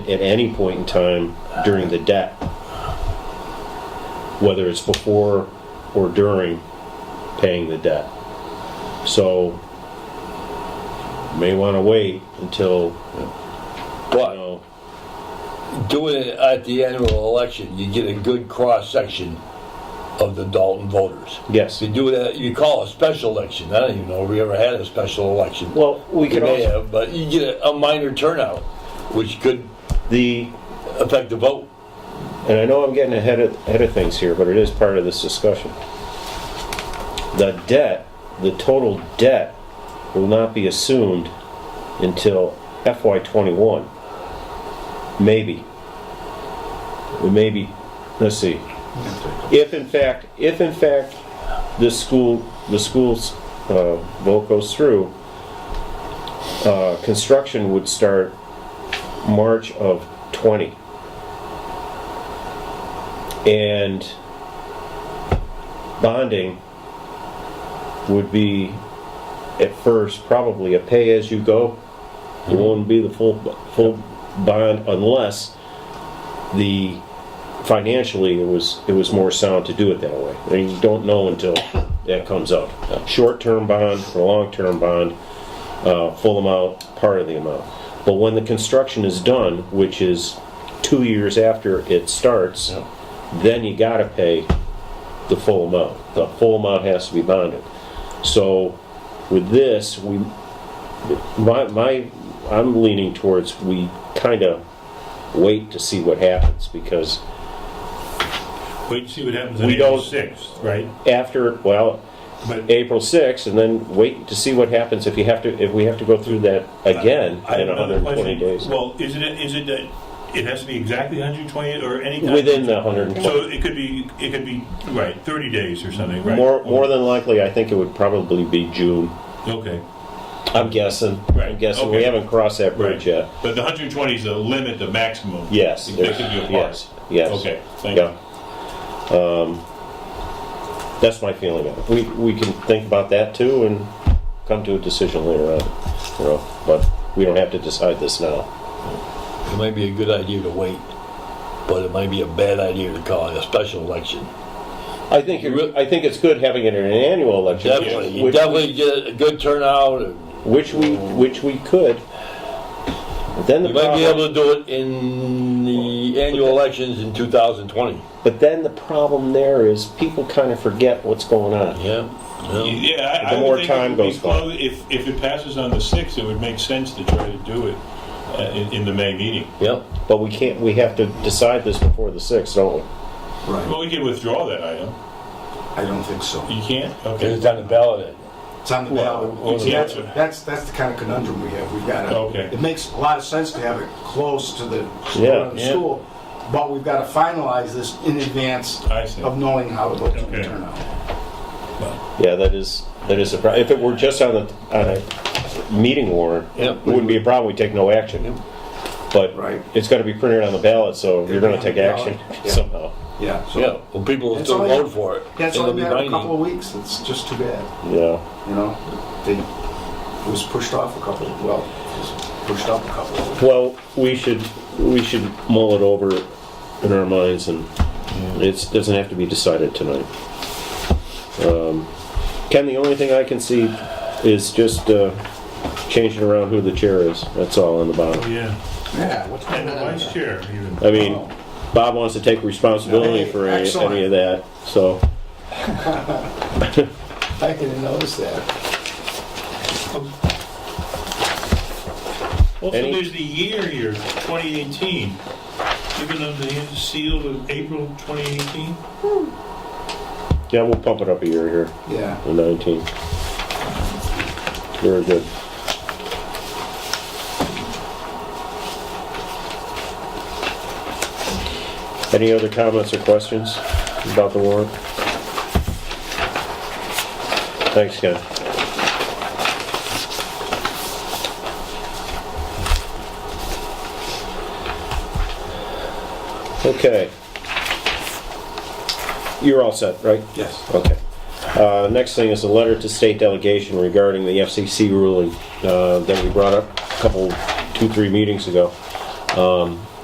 at any point in time during the debt, whether it's before or during paying the debt. So, may want to wait until, you But know, doing it at the annual election, you get a good cross-section of the Dalton voters. yes. You do that, you call a special election, I don't even know if we ever had a special election. Well, we You could may also, have, but you get a- a minor turnout, which could the, affect the vote. and I know I'm getting ahead of, ahead of things here, but it is part of this discussion. The debt, the total debt will not be assumed until FY twenty-one. Maybe. Maybe, let's see. If in fact, if in fact, this school, the school's, uh, vote goes through, uh, construction would start March of twenty. And bonding would be at first probably a pay-as-you-go. It won't be the full, full bond unless the, financially, it was, it was more sound to do it that way. And you don't know until that comes up. Short-term bond or long-term bond, uh, full amount, part of the amount. But when the construction is done, which is two years after it starts, then you gotta pay the full amount. The full amount has to be bonded. So with this, we, my, my, I'm leaning towards we kinda wait to see what happens because Wait and see what happens on We April don't- 6th, right? after, well, But April sixth, and then wait to see what happens if you have to, if we have to go through that again I have in another hundred and twenty question. days. Well, is it, is it that, it has to be exactly 120 or any? kind- Within the hundred and twenty, So it could be, it could be, right, 30 days or something, right? more, more than likely, I think it would probably be June. Okay, I'm guessing, I'm Right, guessing, we okay. haven't crossed that right. bridge yet. But the 120 is the limit, the maximum? Yes. They there's- could be apart? Yes, yes. Okay, thank Yeah. you. Um, That's my feeling of it. We, we can think about that too and come to a decision later on, you know, but we don't have to decide this now. It might be a good idea to wait, but it might be a bad idea to call it a special election. I think, you're- I think it's good having it in an annual election. Definitely, you which- definitely get a good turnout, and Which we, which we could. But Then the you might be problem, able to do it in the annual elections in 2020. but then the problem there is people kind of forget what's going on. Yeah, yeah. Yeah, I- I The would more think it time would be goes by. close- If, if it passes on the 6th, it would make sense to try to do it uh, in, in the May meeting. Yep. But we can't, we have to decide this before the sixth, don't we? Right, Well, we can withdraw that item. I don't think so. You can't? Okay. It's on the ballot. It's on the Well, ballot. well, See, that's, yeah. that's, that's the kind of conundrum we have, we've got Okay. to, it makes a lot of sense to have it close to the Yeah. school- school, but we've got to finalize this in advance I see. of knowing how it looks Okay. going to turn out. Yeah, that is, that is a problem. If it were just on a, on a meeting warrant, Yeah. it wouldn't be a problem, we'd take no action. But Right. it's gotta be printed on the ballot, so you're gonna take action Yeah. somehow. Yeah, so, Yeah, well, people will It's still only- vote for it. that's It'll only be been a binding. couple of weeks, it's just too bad, Yeah. you know? They, it was pushed off a couple, well, it was pushed up a couple of weeks. Well, we should, we should mull it over in our minds and it's, doesn't have to be decided tonight. Um, Ken, the only thing I can see is just, uh, changing around who the chair is. That's all on the bottom. Yeah. Yeah, what's And going the on? vice chair, even. I mean, Bob wants to take responsibility Hey, for any, excellent. any of that, so. I didn't notice that. Also, Any- there's the year here, 2018, given under the seal of April 2018. Yeah, we'll pump it up a year here, Yeah, the 19. Very good. Any other comments or questions about the warrant? Thanks, Ken. Okay. You're all set, right? yes. Okay. Uh, Next thing is a letter to state delegation regarding the FCC ruling uh, that we brought up a couple, two, three meetings ago.